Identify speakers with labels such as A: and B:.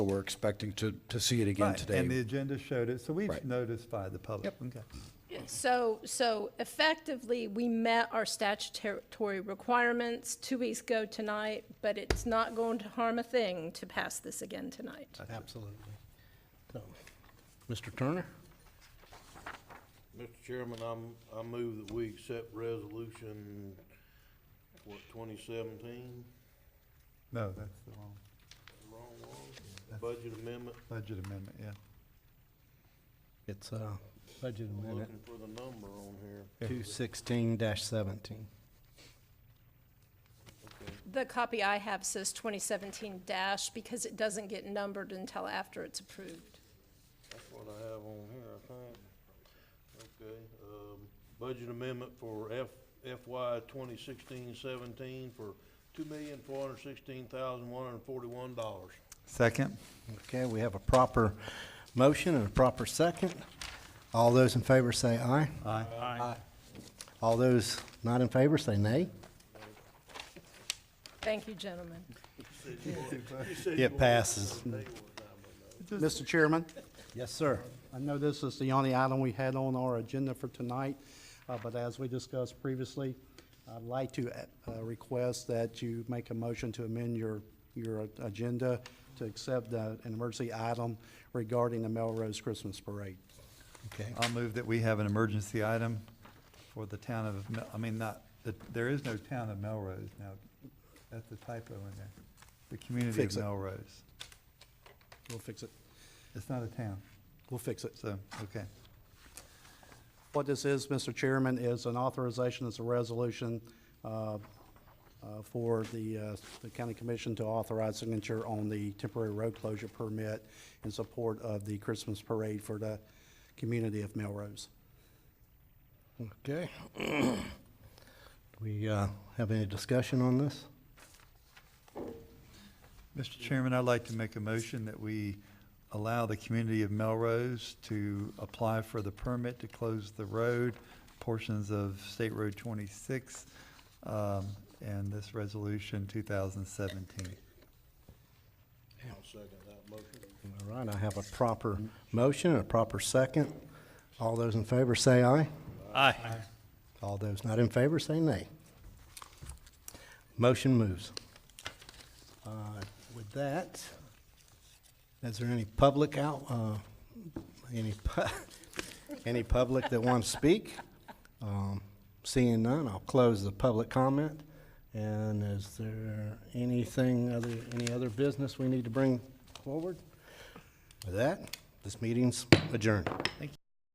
A: We're expecting to, to see it again
B: Right, And the
A: today.
B: agenda showed it, so we've
A: Right.
B: notified the public. Okay.
C: So, so effectively, we met our statutory requirements two weeks ago tonight, but it's not going to harm a thing to pass this again tonight.
D: Absolutely. So, Mr. Turner?
E: Mr. Chairman, I'm, I move that we accept resolution, what, twenty seventeen?
B: No, that's the wrong
E: Wrong one? Budget amendment,
B: budget amendment, yeah.
D: It's uh, budget
E: I'm
D: amendment
E: looking for the number on here.
D: 216-17.
E: Okay.
C: The copy I have says 2017 dash because it doesn't get numbered until after it's approved.
E: That's what I have on here, I think. Okay, um, budget amendment for F, FY 2016-17 for two million, four hundred sixteen thousand, one hundred forty-one dollars.
B: Second?
D: Okay, we have a proper motion and a proper second. All those in favor say aye.
B: Aye.
D: All those not in favor say nay.
C: Thank you, gentlemen.
D: It passes.
F: Mr. Chairman,
D: Yes, sir.
F: I know this is the only item we had on our agenda for tonight, uh, but as we discussed previously, I'd like to uh, request that you make a motion to amend your, your agenda to accept uh, an emergency item regarding the Melrose Christmas Parade.
D: Okay,
B: I'll move that we have an emergency item for the town of, Mel- I mean, not, the- there is no town of Melrose now. That's the typo in there. The community of
F: Fix it.
B: Melrose.
F: We'll fix it.
B: It's not a town,
F: We'll fix it.
B: so, okay.
F: What this is, Mr. Chairman, is an authorization, it's a resolution uh, uh, for the, uh, the county commission to authorize signature on the temporary road closure permit in support of the Christmas parade for the community of Melrose.
D: okay. Do we uh, have any discussion on this?
B: Mr. Chairman, I'd like to make a motion that we allow the community of Melrose to apply for the permit to close the road, portions of State Road 26, um, and this resolution 2017.
E: I'll second that motion.
D: All right, I have a proper motion and a proper second. All those in favor say aye. Aye. All those not in favor say nay. Motion moves. Uh, With that, is there any public out, uh, any, pu- any public that wants to speak? Um, Seeing none, I'll close the public comment. And is there anything other, any other business we need to bring forward? With that, this meeting's adjourned.